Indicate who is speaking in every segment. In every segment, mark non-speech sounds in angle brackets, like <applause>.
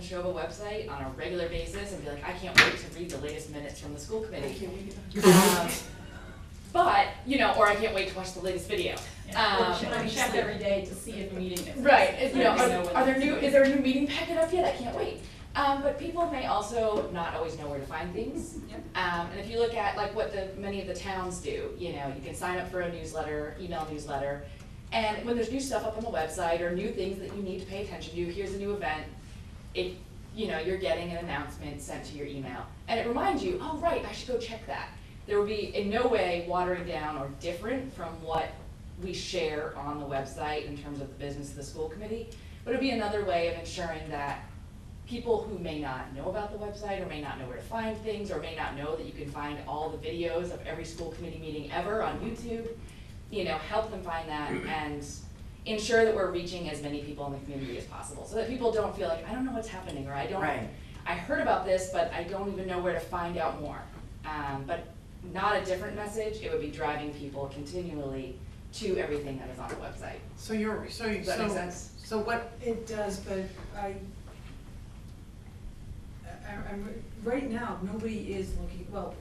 Speaker 1: Trioba website on a regular basis and be like, I can't wait to read the latest minutes from the school committee. Um, But, you know, or I can't wait to watch the latest video. Um,
Speaker 2: But I check every day to see if meeting is.
Speaker 1: Right, if, you know,
Speaker 2: Right, so
Speaker 1: are,
Speaker 2: when
Speaker 1: are there
Speaker 2: it's-
Speaker 1: new, is there a new meeting packet up yet? I can't wait. Um, but people may also not always know where to find things.
Speaker 2: Yep.
Speaker 1: Um, and if you look at like what the, many of the towns do, you know, you can sign up for a newsletter, email newsletter. And when there's new stuff up on the website or new things that you need to pay attention to, here's a new event, it, you know, you're getting an announcement sent to your email. And it reminds you, oh, right, I should go check that. There will be in no way watering down or different from what we share on the website in terms of the business of the school committee. But it'll be another way of ensuring that people who may not know about the website or may not know where to find things or may not know that you can find all the videos of every school committee meeting ever on YouTube, you know, help them find that and ensure that we're reaching as many people in the community as possible. So that people don't feel like, I don't know what's happening or I don't,
Speaker 3: Right.
Speaker 1: I heard about this, but I don't even know where to find out more. Um, but not a different message, it would be driving people continually to everything that is on the website.
Speaker 3: So you're, so, you-
Speaker 1: Does that make
Speaker 3: so,
Speaker 1: sense?
Speaker 3: so what,
Speaker 4: It does, but I, I, I'm, right now, nobody is looking, well,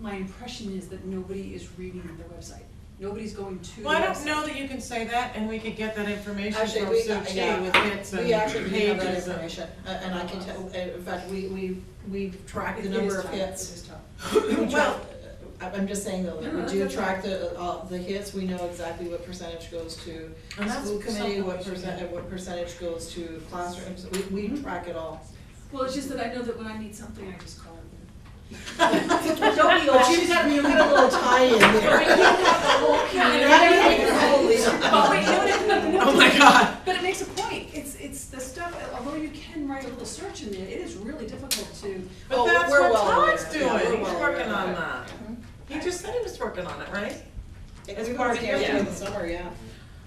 Speaker 4: my impression is that nobody is reading the website. Nobody's going to the website.
Speaker 3: well, I don't know that you can say that, and we could get that information from
Speaker 5: Actually, we, uh,
Speaker 3: Sochi with hits
Speaker 5: yeah, we actually
Speaker 3: and
Speaker 5: do have that
Speaker 3: pages and.
Speaker 5: information, uh, and I can tell, uh, in fact, we, we, we've tracked the
Speaker 4: It is
Speaker 5: number of
Speaker 4: tough, It
Speaker 5: hits.
Speaker 4: is tough.
Speaker 5: We track-
Speaker 3: <coughs> <clears throat> Well,
Speaker 5: I- I'm just saying though, that
Speaker 4: No,
Speaker 5: we
Speaker 4: that's
Speaker 5: do
Speaker 4: okay.
Speaker 5: track the, uh, all the hits, we know exactly what percentage goes to
Speaker 3: And that's
Speaker 5: school committee,
Speaker 3: something
Speaker 5: what
Speaker 3: we should Mm-hmm.
Speaker 5: percent,
Speaker 3: get.
Speaker 5: what percentage goes to classrooms, we, we track it all.
Speaker 4: Well, it's just that I know that when I need something, I just call it.
Speaker 5: <laughs> Don't we all? She's got, you got a
Speaker 3: <laughs>
Speaker 5: little tie-in there.
Speaker 4: But wait, no, no, no, no.
Speaker 3: Oh my god,
Speaker 4: But it makes a point, it's, it's the stuff, although you can write a little search in there, it is really difficult to,
Speaker 3: but
Speaker 5: Oh,
Speaker 3: that's
Speaker 5: we're
Speaker 3: what
Speaker 5: well aware.
Speaker 3: Todd's
Speaker 5: Yeah, we're
Speaker 3: doing, he's
Speaker 5: well
Speaker 3: working
Speaker 5: aware.
Speaker 3: on that. He just said he was working on it, right? It's
Speaker 5: We've
Speaker 3: part
Speaker 5: already
Speaker 3: of
Speaker 5: done
Speaker 3: it,
Speaker 5: it
Speaker 3: yeah.
Speaker 5: in the summer, yeah.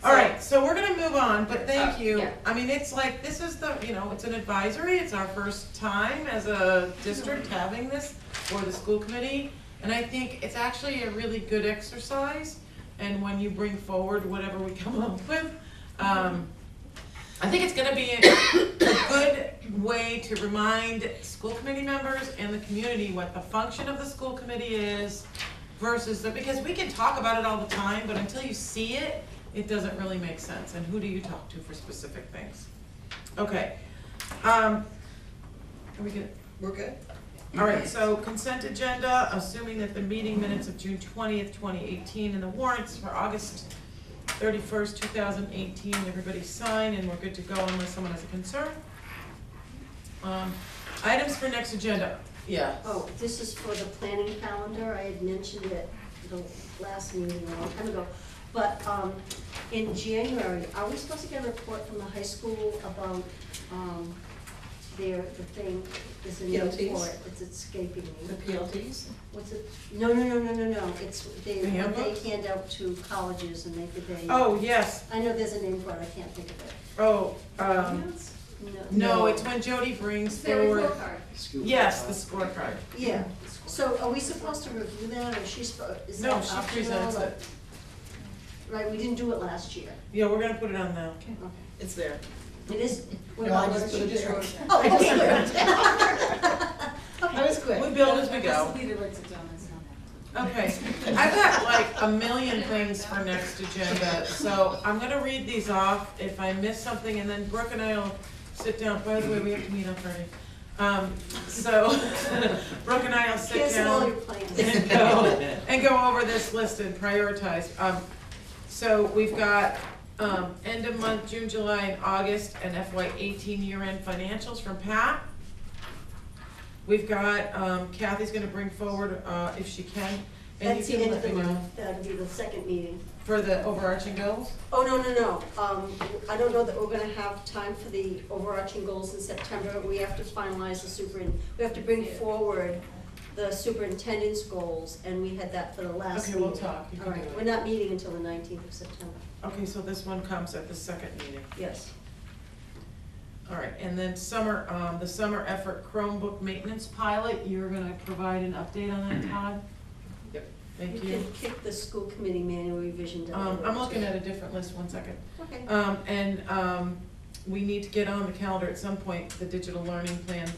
Speaker 3: All right, so we're gonna move on, but thank
Speaker 1: Uh,
Speaker 3: you.
Speaker 1: yeah.
Speaker 3: I mean, it's like, this is the, you know, it's an advisory, it's our first time as a
Speaker 1: Mm-hmm.
Speaker 3: district having this, or the school committee. And I think it's actually a really good exercise, and when you bring forward whatever we <laughs> come up with,
Speaker 1: Mm-hmm.
Speaker 3: um, I think it's gonna be a, a good way to remind school committee members and the community what the function of the school committee is versus the, because we can talk about it all the time, but until you see it, it doesn't really make sense, and who do you talk to for specific things? Okay, um, are we good?
Speaker 5: We're good?
Speaker 3: All right, so consent agenda, assuming that the meeting minutes of June twentieth, twenty eighteen, and the warrants for August thirty-first, two thousand eighteen, everybody sign, and we're good to go unless someone has a concern. Um, items for next agenda, yeah.
Speaker 6: Oh, this is for the planning calendar, I had mentioned it the last meeting a long time ago. But, um, in January, are we supposed to get a report from the high school about, um, their, the thing, is a name
Speaker 5: PLTs?
Speaker 6: for it, it's escaping
Speaker 5: The
Speaker 6: me.
Speaker 5: PLTs?
Speaker 6: What's it, no, no, no, no, no, no, it's, they,
Speaker 3: The handbook?
Speaker 6: they hand out to colleges and they, they.
Speaker 3: Oh, yes,
Speaker 6: I know there's a name for it, I can't think of it.
Speaker 3: oh, um, no, it's when Jody brings forward, yes, the scorecard.
Speaker 6: Yeah, so are we supposed to review that, or she's, spo- is that
Speaker 3: No, she
Speaker 6: optional?
Speaker 3: presents
Speaker 6: or-
Speaker 3: it.
Speaker 6: Right, we didn't do it last year.
Speaker 3: Yeah, we're gonna put it on now.
Speaker 6: Okay.
Speaker 5: It's there.
Speaker 6: It is, what
Speaker 5: No, I
Speaker 6: about
Speaker 5: just
Speaker 6: what
Speaker 5: put
Speaker 6: she
Speaker 5: it
Speaker 6: just
Speaker 5: there.
Speaker 6: wrote? Oh, I just wrote it.
Speaker 5: I was quick.
Speaker 3: We build as we
Speaker 2: Unless
Speaker 3: go.
Speaker 2: the leader writes it down, it's not that.
Speaker 3: Okay, I've got like a million things for next agenda, so I'm gonna read these off. If I miss something, and then Brooke and I'll sit down. By the way, we have to meet on Friday. Um, so <laughs> Brooke and I'll sit
Speaker 6: Cancel all your
Speaker 3: down
Speaker 6: plans.
Speaker 3: and go, <laughs> and go over this list and prioritize. Um, so we've got, um, end of month, June, July, and August, and FY eighteen year-end financials from Pat. We've got, um, Kathy's gonna bring forward, uh, if she can, and you
Speaker 6: That's the
Speaker 3: can
Speaker 6: end
Speaker 3: let
Speaker 6: of the
Speaker 3: me know,
Speaker 6: month, that'll be the second meeting.
Speaker 3: for the overarching goals?
Speaker 6: Oh, no, no, no, um, I don't know that we're gonna have time for the overarching goals in September, we have to finalize the superin, we have to bring forward the superintendent's goals, and we had that for the last
Speaker 3: Okay,
Speaker 6: meeting.
Speaker 3: we'll talk, you
Speaker 6: All
Speaker 3: can do
Speaker 6: right, we're
Speaker 3: it.
Speaker 6: not meeting until the nineteenth of September,
Speaker 3: Okay, so this one comes at the second meeting.
Speaker 6: yes.
Speaker 3: All right, and then summer, um, the summer effort Chromebook maintenance pilot, you're gonna provide an update on that, Todd?
Speaker 1: Yep.
Speaker 3: Thank
Speaker 6: You
Speaker 3: you.
Speaker 6: can kick the school committee manual revision down. the
Speaker 3: Um,
Speaker 6: road,
Speaker 3: I'm
Speaker 6: too.
Speaker 3: looking at a different list, one second.
Speaker 6: Okay.
Speaker 3: Um, and, um, we need to get on the calendar at some point, the digital learning plan